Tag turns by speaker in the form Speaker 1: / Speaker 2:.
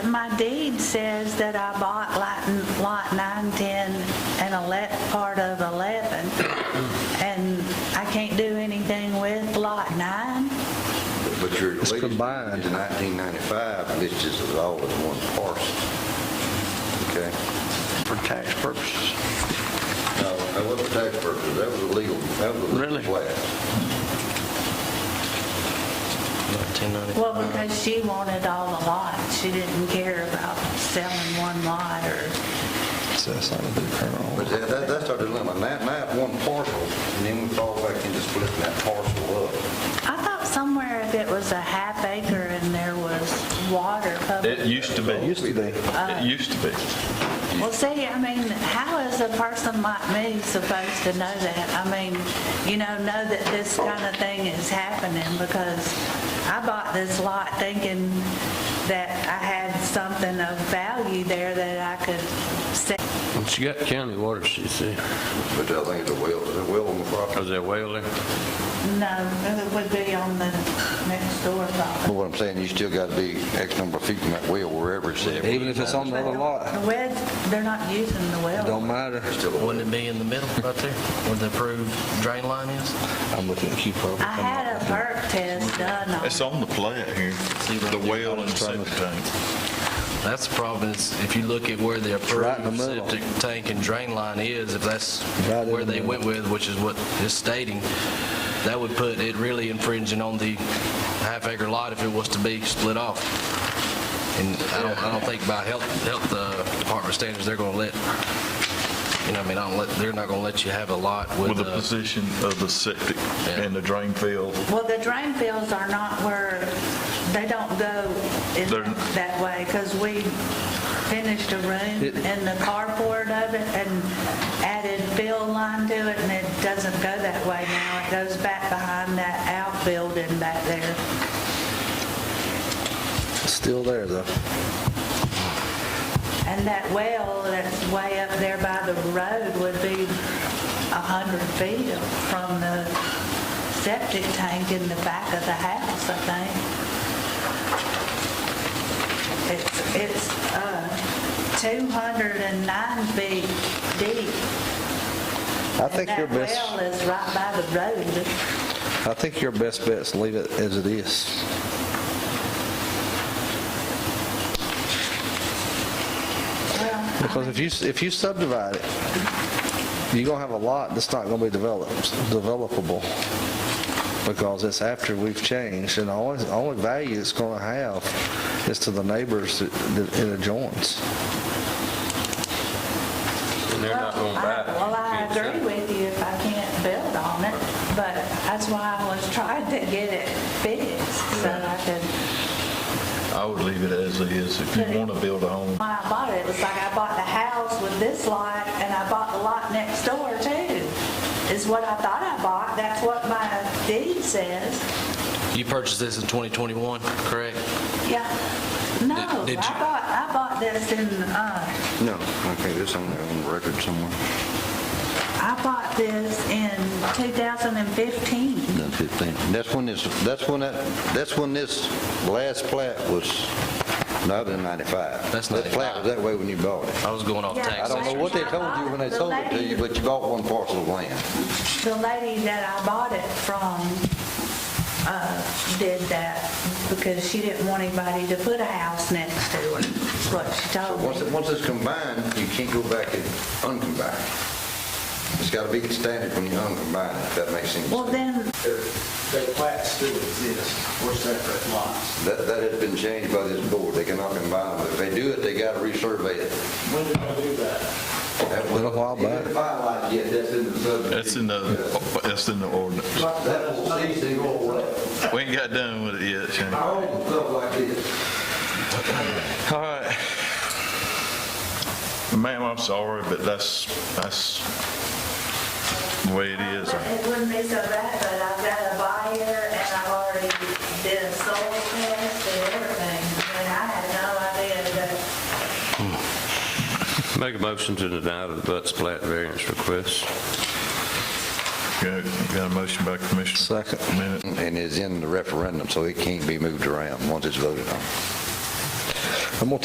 Speaker 1: my deed says that I bought lot- lot 9, 10, and 11, part of 11, and I can't do anything with lot 9?
Speaker 2: But you're
Speaker 3: It's
Speaker 2: leasing it to
Speaker 3: combined.
Speaker 2: 1995, and this is all as one parcel. Okay?
Speaker 4: for tax purposes.
Speaker 2: No, that wasn't tax purposes, that was a legal, that was a legal
Speaker 4: Really?
Speaker 2: flat.
Speaker 5: 1995.
Speaker 1: Well, because she wanted all the lots, she didn't care about selling one lot or,
Speaker 3: So that's not a big
Speaker 2: But
Speaker 3: kernel.
Speaker 2: that, that- that's our dilemma, now, now it's one parcel, and then we fall back into splitting that parcel up.
Speaker 1: I thought somewhere if it was a half acre and there was water public.
Speaker 6: It used to be.
Speaker 3: It used to be.
Speaker 6: It used to be.
Speaker 1: Well, see, I mean, how is a person like me supposed to know that? I mean, you know, know that this kind of thing is happening because I bought this lot thinking that I had something of value there that I could sell.
Speaker 7: Well, She got county water, she said.
Speaker 2: But I think it's a well, it's a well on the property.
Speaker 7: Is there a well there?
Speaker 1: No, um, it would be on the next door property.
Speaker 2: But what I'm saying, you still got to be X number of feet from that well wherever it's at.
Speaker 3: Even if it's on another lot,
Speaker 1: The wells, they're not using the
Speaker 3: it
Speaker 1: well.
Speaker 3: don't matter.
Speaker 2: Still a well.
Speaker 5: Wouldn't it be in the middle right there where the approved drain line is?
Speaker 3: I'm looking at you probably.
Speaker 1: I had a perk test done on
Speaker 6: It's on the plat here, the well and septic tank.
Speaker 5: That's the problem is if you look at where the
Speaker 3: right in the
Speaker 5: approved
Speaker 3: middle.
Speaker 5: septic tank and drain line is, if that's
Speaker 3: Right in
Speaker 5: where
Speaker 3: the
Speaker 5: they
Speaker 3: middle.
Speaker 5: went with, which is what it's stating, that would put it really infringing on the half acre lot if it was to be split off. And I don't, I don't think by health, health uh, department standards, they're gonna let, you know, I mean, I don't let, they're not gonna let you have a lot
Speaker 6: With
Speaker 5: with
Speaker 6: the
Speaker 5: uh
Speaker 6: position of the septic and the drain field,
Speaker 1: Well, the drain fields are not where, they don't go in
Speaker 6: They're-
Speaker 1: that way, because we finished a room
Speaker 3: It-
Speaker 1: in the carport of it and added field line to it, and it doesn't go that way now. It goes back behind that outbuilding back there.
Speaker 3: It's still there though.
Speaker 1: And that well that's way up there by the road would be 100 feet from the septic tank in the back of the house, I think. It's, it's uh, 209 feet deep.
Speaker 3: I think your best,
Speaker 1: And that well is right by the road.
Speaker 3: I think your best bet is leave it as it is.
Speaker 1: Well,
Speaker 3: Because if you, if you subdivide it, you're gonna have a lot that's not gonna be developed, developable. Because it's after we've changed, and the only, only value it's gonna have is to the neighbors that that it adjoins.
Speaker 7: And they're not gonna buy it.
Speaker 1: Well, I agree with you if I can't build on it, but that's why I was trying to get it fixed, so I could,
Speaker 6: I would leave it as it is. If you want to build a home,
Speaker 1: when I bought it, it was like I bought the house with this lot, and I bought the lot next door too, is what I thought I bought, that's what my deed says.
Speaker 5: You purchased this in 2021, correct?
Speaker 1: Yeah, no, I
Speaker 5: Did- did you-
Speaker 1: bought, I bought this in, uh,
Speaker 2: No, okay, this on, on the record somewhere.
Speaker 1: I bought this in 2015.
Speaker 2: Done 15. That's when this, that's when that, that's when this last plat was, not in 95.
Speaker 5: That's
Speaker 2: That plat was that way when you bought it.
Speaker 5: I was going off
Speaker 1: Yeah.
Speaker 2: I
Speaker 5: tax.
Speaker 2: don't know what they told you when they sold it to you, but you bought one parcel of land.
Speaker 1: the lady that I bought it from uh, did that because she didn't want anybody to put a house next to her, is what she
Speaker 2: So
Speaker 1: told
Speaker 2: once,
Speaker 1: me.
Speaker 2: it- once it's combined, you can't go back and uncombine. It's got to be standard when you uncombine it, if that makes sense.
Speaker 1: Well, then,
Speaker 8: Their plats still exist for separate lots.
Speaker 2: That, that has been changed by this board, they cannot combine them. If they do it, they got to resurvey it.
Speaker 8: When did I do that?
Speaker 2: That was-
Speaker 3: Little while
Speaker 2: You didn't
Speaker 3: back.
Speaker 2: file like yet, that's in the subdivision.
Speaker 6: that's in the, that's in the ordinance.
Speaker 2: That will cease and go away.
Speaker 6: We ain't got done with it yet, Shane.
Speaker 2: Our own stuff like this.
Speaker 6: All right. Ma'am, I'm sorry, but that's, that's the way it is.
Speaker 1: it wouldn't be so bad, but I've got a buyer and I've already did a soul test and everything, and I had no idea that,
Speaker 7: Make a motion to deny the Butts plat variance request.
Speaker 6: Got got a motion by Commissioner
Speaker 3: Second.
Speaker 6: Bennett,
Speaker 2: And it's in the referendum, so it can't be moved around once it's voted on.